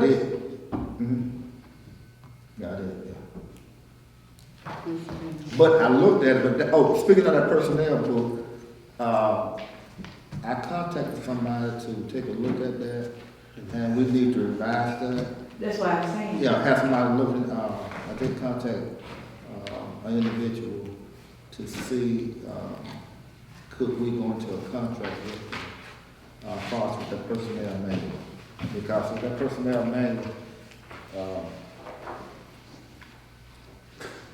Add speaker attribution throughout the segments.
Speaker 1: I did. Mhm. Yeah, I did, yeah. But I looked at it, but, that- oh, speaking of that personnel book, uh, I contacted somebody to take a look at that, and we need to revise that.
Speaker 2: That's why I'm saying.
Speaker 1: Yeah, have somebody look at, uh, I did contact, uh, an individual to see, um, could we go into a contract with, uh, Fox with the personnel manual? Because with that personnel manual, uh,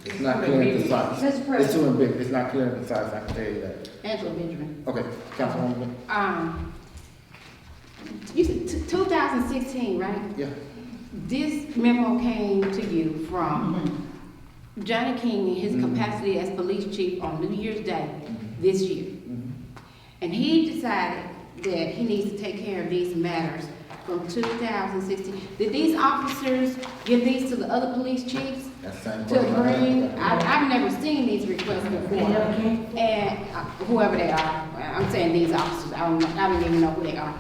Speaker 1: it's not clear and concise.
Speaker 3: Mr.
Speaker 1: It's
Speaker 3: President,
Speaker 1: too big, it's not clear and concise, I can tell you that.
Speaker 3: Angela Benjamin,
Speaker 1: Okay, Councilwoman,
Speaker 3: um, you said t- 2016, right?
Speaker 1: yeah,
Speaker 3: This memo came to you from Johnny King in his
Speaker 1: Mhm.
Speaker 3: capacity as police chief on New Year's Day
Speaker 1: Mhm.
Speaker 3: this year.
Speaker 1: mhm,
Speaker 3: And he decided that he needs to take care of these matters from 2016. Did these officers give these to the other police chiefs
Speaker 1: that's the same
Speaker 3: to
Speaker 1: question. I had.
Speaker 3: bring? I, I've never seen these requests
Speaker 2: They
Speaker 3: before.
Speaker 2: never came.
Speaker 3: and uh, whoever they are, I'm saying these officers, I don't, know- I don't even know who they are,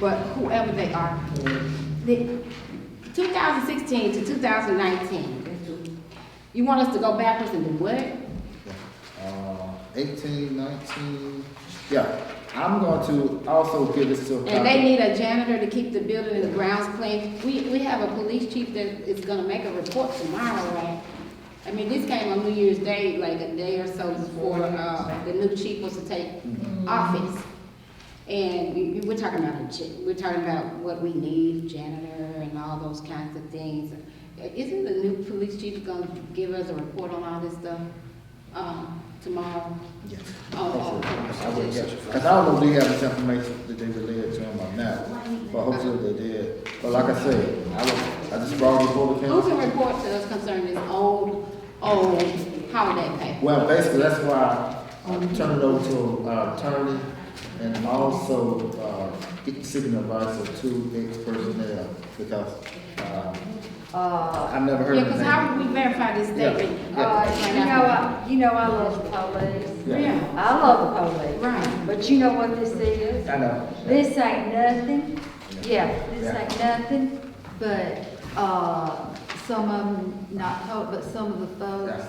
Speaker 3: but whoever they are, the 2016 to 2019, you want us to go backwards and do what?
Speaker 1: Uh, 18, 19, yeah. I'm going to also give this to. a
Speaker 3: And they
Speaker 1: couple-
Speaker 3: need a janitor to keep the building and the grounds clean. We, we have a police chief that is gonna make a report tomorrow, right? I mean, this came on New Year's Day, like a day or so before, uh, the new chief was to take
Speaker 1: Mm-hmm.
Speaker 3: office. And we, we- we're talking about a, ja- we're talking about what we need, janitor and all those kinds of things. Isn't the new police chief gonna give us a report on all this stuff, um, tomorrow?
Speaker 1: Yeah.
Speaker 3: Oh,
Speaker 1: Hopefully.
Speaker 3: oh,
Speaker 1: I
Speaker 3: oh.
Speaker 1: would, yeah. 'Cause I don't know if they have this information that they relayed to him or not, but hopefully they did. But like I said, I was, I just brought it before the
Speaker 3: Who
Speaker 1: council.
Speaker 3: can report to us concerning this old, old holiday pay?
Speaker 1: Well, basically, that's why I turned it over to uh, attorney and also, uh, get- seeking advice of two ex-personnel because, uh,
Speaker 4: Uh,
Speaker 1: I've never heard
Speaker 3: Yeah,
Speaker 1: of
Speaker 3: because
Speaker 1: that.
Speaker 3: how would we verify this
Speaker 1: Yeah,
Speaker 3: statement?
Speaker 1: yeah.
Speaker 4: uh, you know, I, you know I love the police.
Speaker 3: Yeah,
Speaker 4: I love the police.
Speaker 3: right.
Speaker 4: But you know what this is?
Speaker 1: I know.
Speaker 4: This ain't nothing, yeah, this ain't nothing, but, uh, some of them not told, but some of the folks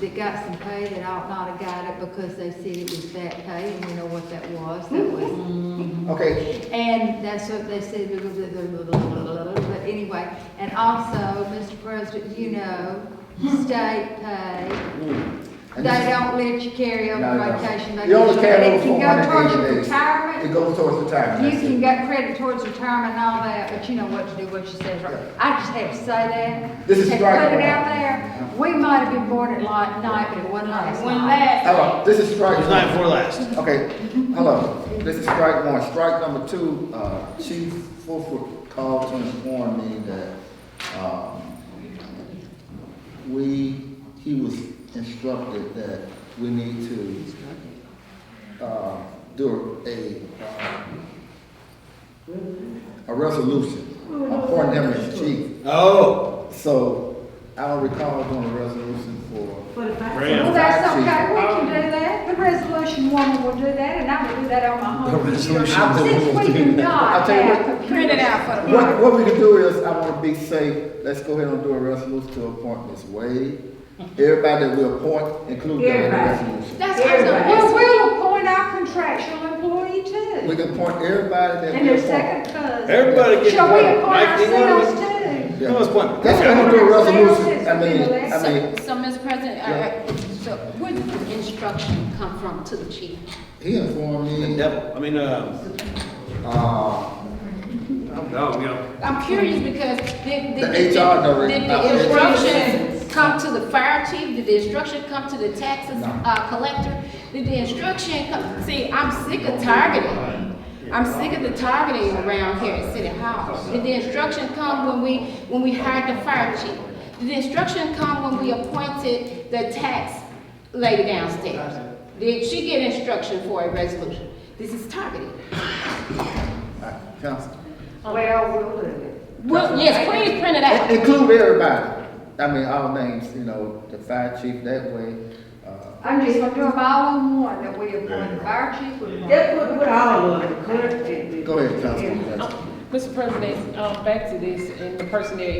Speaker 4: that got some pay that ought not have got it because they said it was that pay, and we know what that was, that
Speaker 3: Mm-hmm.
Speaker 4: was.
Speaker 1: Okay,
Speaker 4: And that's what they said, blah, blah, blah, blah, blah, blah, blah, but anyway, and also, Mr. President, you know, state pay, They
Speaker 1: And this-
Speaker 4: don't let you carry over
Speaker 1: No, no.
Speaker 4: vacation.
Speaker 1: You only carry
Speaker 4: It can
Speaker 1: over
Speaker 4: go towards
Speaker 1: 480
Speaker 4: your
Speaker 1: days. It
Speaker 4: retirement,
Speaker 1: goes towards retirement.
Speaker 4: you
Speaker 1: that's
Speaker 4: can
Speaker 1: it.
Speaker 4: get credit towards retirement and all that, but you know what to do, what you say is right. I just have to say that.
Speaker 1: This is
Speaker 4: Have
Speaker 1: right.
Speaker 4: Put it out there, we might have been born at light night, but it wasn't last
Speaker 3: One
Speaker 4: night.
Speaker 3: last.
Speaker 1: Hello, this is strike
Speaker 5: It's not
Speaker 1: one.
Speaker 5: for last.
Speaker 1: Okay, hello, this is strike one. Strike number two, uh, Chief Fulford called to inform me that, um, we, he was instructed that we need to, uh, do a, uh, a resolution appointing him as chief.
Speaker 5: Oh,
Speaker 1: So I don't recall doing a resolution for
Speaker 2: For the fact.
Speaker 5: Right.
Speaker 4: Well, that's
Speaker 1: Five,
Speaker 4: okay, we
Speaker 1: two.
Speaker 4: can do that, the resolution woman will do that, and I will do that on my home
Speaker 5: The
Speaker 4: computer.
Speaker 5: resolution woman
Speaker 4: Since
Speaker 5: will
Speaker 4: we
Speaker 5: do
Speaker 4: do
Speaker 5: that.
Speaker 1: I'll
Speaker 4: not
Speaker 1: tell you what-
Speaker 4: have.
Speaker 3: Print it out for the.
Speaker 1: What, what we can do is, I wanna be safe, let's go ahead and do a resolution to appoint Ms. Wade. Everybody that we appoint, include them in the
Speaker 2: Everybody.
Speaker 1: resolution.
Speaker 3: That's
Speaker 4: Well,
Speaker 3: awesome.
Speaker 4: we'll appoint our contractual employee
Speaker 1: We
Speaker 4: too,
Speaker 1: can appoint everybody that
Speaker 4: and
Speaker 1: we
Speaker 4: their
Speaker 1: appoint.
Speaker 4: second cousin.
Speaker 5: everybody gets
Speaker 4: Shall
Speaker 5: one.
Speaker 4: we appoint
Speaker 5: Mike, you want
Speaker 4: ourselves
Speaker 5: one?
Speaker 4: too?
Speaker 1: Yeah.
Speaker 5: Who wants one?
Speaker 1: Let's go ahead and do a resolution, I mean, I
Speaker 3: So,
Speaker 1: mean,
Speaker 3: so, Mr. President,
Speaker 1: Yeah.
Speaker 3: uh, so where did the instruction come from to the chief?
Speaker 1: he informed
Speaker 5: The
Speaker 1: me,
Speaker 5: devil. I mean, uh,
Speaker 1: uh,
Speaker 5: no, you know.
Speaker 3: I'm curious because did, did.
Speaker 1: The
Speaker 3: did-
Speaker 1: HR director.
Speaker 3: Did
Speaker 1: Uh,
Speaker 3: the instruction come to the fire chief? Did the instruction come to the taxes,
Speaker 1: No.
Speaker 3: uh, collector? Did the instruction come, see, I'm sick of targeting. I'm sick of the targeting around here at City Hall. Did the instruction come when we, when we hired the fire chief? Did the instruction come when we appointed the tax lady downstairs? Did she get instruction for a resolution? This is targeting.
Speaker 1: uh, council,
Speaker 4: Well, we'll do it.
Speaker 3: Well, yes, please print it out.
Speaker 1: In- include everybody. I mean, all names, you know, the fire chief that way, uh,
Speaker 4: I'm just gonna do them all in one, that we appoint the fire chief, we appoint.
Speaker 2: That's what, what all of it, the clerk. and the-
Speaker 1: go ahead, Councilwoman. Jackson.
Speaker 6: Mr. President, um, back to this, and the person that